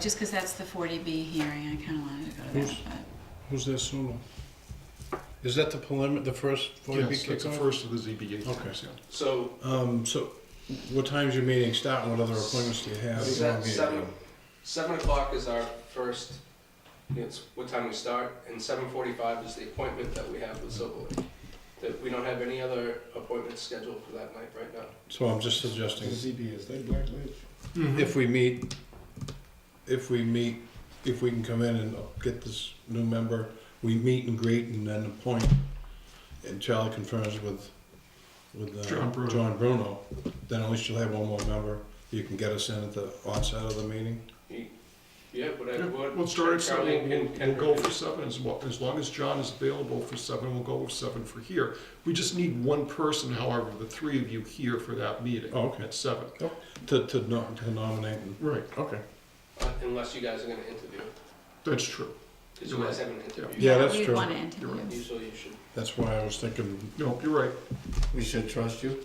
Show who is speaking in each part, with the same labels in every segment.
Speaker 1: Just because that's the 40B hearing, I kind of wanted to go to
Speaker 2: Who's-
Speaker 1: that, but
Speaker 2: Who's that solo? Is that the prelim, the first forty B
Speaker 3: Yes, that's the
Speaker 2: kickoff?
Speaker 3: first of the ZBA
Speaker 2: Okay.
Speaker 3: hearings, yeah.
Speaker 4: So,
Speaker 2: Um, so what time's your meeting start and what other appointments do you have?
Speaker 4: is that seven, seven o'clock is our first, it's what time we start, and seven forty-five is the appointment that we have with Silver Lake. That we don't have any other appointments scheduled for that night right now.
Speaker 2: So I'm just suggesting,
Speaker 5: ZB is they black list.
Speaker 3: Mm-hmm.
Speaker 2: if we meet, if we meet, if we can come in and get this new member, we meet and greet and then appoint. And Charlie confirms with, with,
Speaker 3: John
Speaker 2: uh,
Speaker 3: Bruno.
Speaker 2: John Bruno, then at least you'll have one more member. You can get us in at the onset of the meeting.
Speaker 4: Yeah, but I
Speaker 3: Yeah,
Speaker 4: would.
Speaker 3: We'll start at
Speaker 4: Charlie
Speaker 3: seven, we'll,
Speaker 4: and-
Speaker 3: we'll
Speaker 4: and
Speaker 3: go
Speaker 4: Rick.
Speaker 3: for seven, as well, as long as John is available for seven, we'll go with seven for here. We just need one person, however, the three of you here for that meeting
Speaker 2: Oh, okay.
Speaker 3: at seven.
Speaker 2: To, to nom- to nominate and.
Speaker 3: Right,
Speaker 2: Okay.
Speaker 4: Uh, Unless you guys are gonna interview,
Speaker 3: that's true.
Speaker 4: because you guys haven't interviewed.
Speaker 2: Yeah, that's
Speaker 1: we'd
Speaker 2: true.
Speaker 1: want to interview.
Speaker 4: Usually you should,
Speaker 2: That's why I was thinking,
Speaker 3: No, you're right.
Speaker 5: We should trust you.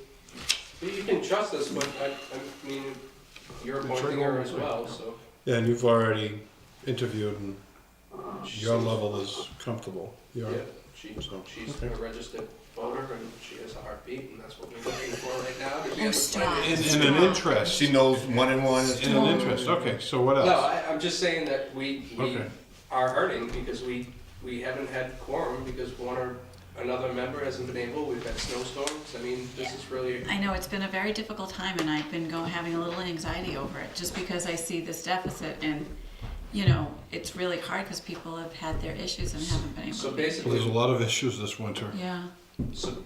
Speaker 4: you you can trust us, but I, I mean, you're
Speaker 3: The
Speaker 4: appointing
Speaker 3: trigger
Speaker 4: her
Speaker 3: was
Speaker 4: as
Speaker 3: like,
Speaker 4: well,
Speaker 3: yeah.
Speaker 4: so.
Speaker 2: yeah, and you've already interviewed and
Speaker 4: she
Speaker 2: your
Speaker 4: seems-
Speaker 2: level is comfortable. You're,
Speaker 4: Yeah, she,
Speaker 2: So,
Speaker 4: she's
Speaker 2: okay.
Speaker 4: a registered voter and she has a heartbeat and that's what we're looking for right now. to be
Speaker 1: Oh,
Speaker 4: able to
Speaker 1: stop.
Speaker 4: find it.
Speaker 1: In- in an
Speaker 2: interest,
Speaker 5: She knows one and one is
Speaker 2: in
Speaker 5: two.
Speaker 2: an interest, okay, so what
Speaker 4: No,
Speaker 2: else?
Speaker 4: I, I'm just saying that we, we
Speaker 2: Okay.
Speaker 4: are hurting because we, we haven't had quorum because one or another member hasn't been able, we've had snowstorms, I mean, this is really,
Speaker 1: I know, it's been a very difficult time, and I've been go, having a little anxiety over it, just because I see this deficit, and, you know, it's really hard because people have had their issues and haven't been able
Speaker 4: so
Speaker 1: to. be-
Speaker 2: Well, There's a
Speaker 4: basically,
Speaker 2: lot of issues this winter.
Speaker 1: Yeah,
Speaker 4: so,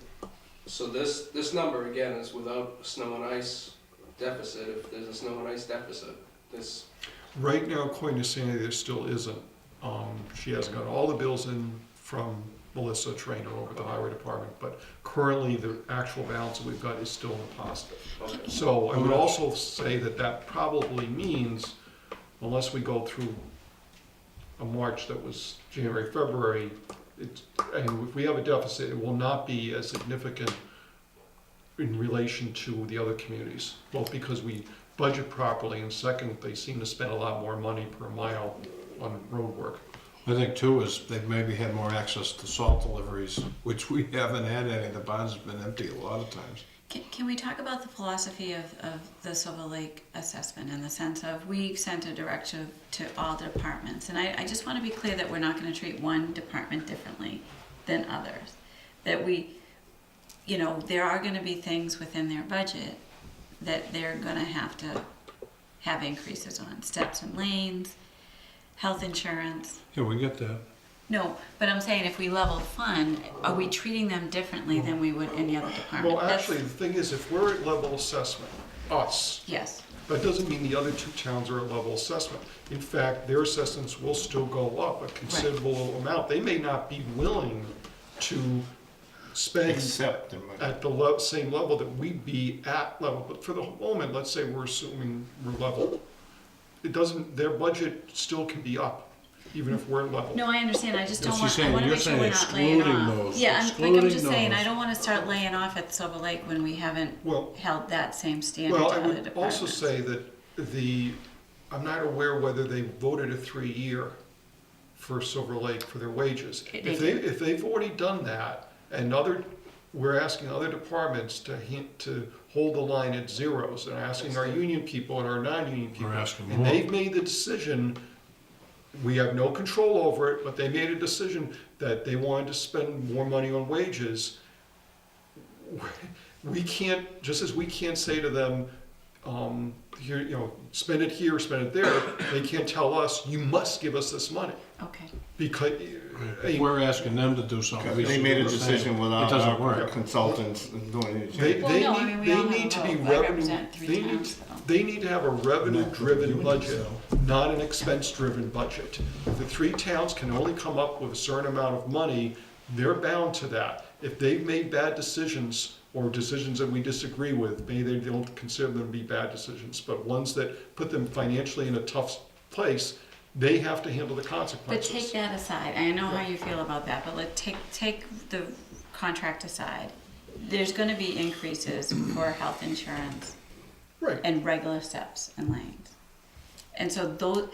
Speaker 4: so this, this number again is without snow and ice deficit, if there's a snow and ice deficit, this,
Speaker 3: Right now, according to Sandy, there still isn't. Um, she has got all the bills in from Melissa Trainer over at the highway department, but currently the actual balance that we've got is still in the positive.
Speaker 4: okay.
Speaker 3: So I would also say that that probably means, unless we go through a March that was January, February, it's, and if we have a deficit, it will not be as significant in relation to the other communities, both because we budget properly, and second, they seem to spend a lot more money per mile on road work.
Speaker 2: I think too is they've maybe had more access to salt deliveries, which we haven't had any, the barn's have been empty a lot of times.
Speaker 1: can, can we talk about the philosophy of, of the Silver Lake assessment, in the sense of, we sent a directive to all departments, and I, I just want to be clear that we're not going to treat one department differently than others, that we, you know, there are gonna be things within their budget that they're gonna have to have increases on, steps and lanes, health insurance.
Speaker 2: Yeah, we get that.
Speaker 1: No, but I'm saying if we level fund, are we treating them differently than we would any other department?
Speaker 3: Well,
Speaker 1: That's-
Speaker 3: actually, the thing is, if we're at level assessment, us,
Speaker 1: Yes,
Speaker 3: That doesn't mean the other two towns are at level assessment. In fact, their assessments will still go up a considerable amount. They may not be willing to spend
Speaker 5: Except in my.
Speaker 3: at the le- same level that we'd be at level, but for the moment, let's say we're assuming we're level. It doesn't, their budget still can be up, even if we're at level.
Speaker 1: no, I understand, I just
Speaker 2: But
Speaker 1: don't
Speaker 2: she's
Speaker 1: want, I
Speaker 2: saying-
Speaker 1: wanna
Speaker 2: you're
Speaker 1: make sure we're
Speaker 2: saying
Speaker 1: not laying off.
Speaker 2: excluding those,
Speaker 1: Yeah, I'm, like, I'm
Speaker 2: excluding
Speaker 1: just saying, I
Speaker 2: those.
Speaker 1: don't wanna start laying off at Silver Lake when we haven't
Speaker 3: Well,
Speaker 1: held that same standard to
Speaker 3: Well, I
Speaker 1: other
Speaker 3: would
Speaker 1: departments.
Speaker 3: also say that the, I'm not aware whether they voted a three-year for Silver Lake for their wages.
Speaker 1: They
Speaker 3: If they, if they've already done that, and other, we're asking other departments to hint, to hold the line at zeros, and asking our union people and our non-union people.
Speaker 2: We're asking
Speaker 3: And
Speaker 2: more.
Speaker 3: they've made the decision, we have no control over it, but they made a decision that they wanted to spend more money on wages we can't, just as we can't say to them, um, here, you know, spend it here, spend it there, they can't tell us, you must give us this money.
Speaker 1: Okay,
Speaker 3: Because, hey,
Speaker 2: We're asking them to do something. we
Speaker 5: They
Speaker 2: should
Speaker 5: made
Speaker 2: do
Speaker 5: a
Speaker 2: the same.
Speaker 5: decision without
Speaker 2: It doesn't
Speaker 5: our
Speaker 2: work.
Speaker 5: consultants doing
Speaker 3: they,
Speaker 5: anything.
Speaker 1: Well,
Speaker 3: they
Speaker 1: no, I mean,
Speaker 3: need,
Speaker 1: we all
Speaker 3: they
Speaker 1: have
Speaker 3: need
Speaker 1: a
Speaker 3: to be
Speaker 1: vote. I
Speaker 3: revenue,
Speaker 1: represent three
Speaker 3: they need,
Speaker 1: towns, so.
Speaker 3: they need to have a revenue-driven
Speaker 2: Union,
Speaker 3: budget,
Speaker 2: so.
Speaker 3: not an expense-driven budget. The three towns can only come up with a certain amount of money, they're bound to that. If they've made bad decisions, or decisions that we disagree with, maybe they don't consider them to be bad decisions, but ones that put them financially in a tough place, they have to handle the
Speaker 1: but
Speaker 3: consequences.
Speaker 1: take that aside, I know how you feel about that, but let, take, take the contract aside. There's gonna be increases for health insurance
Speaker 3: Right.
Speaker 1: and regular steps and lanes. And so those,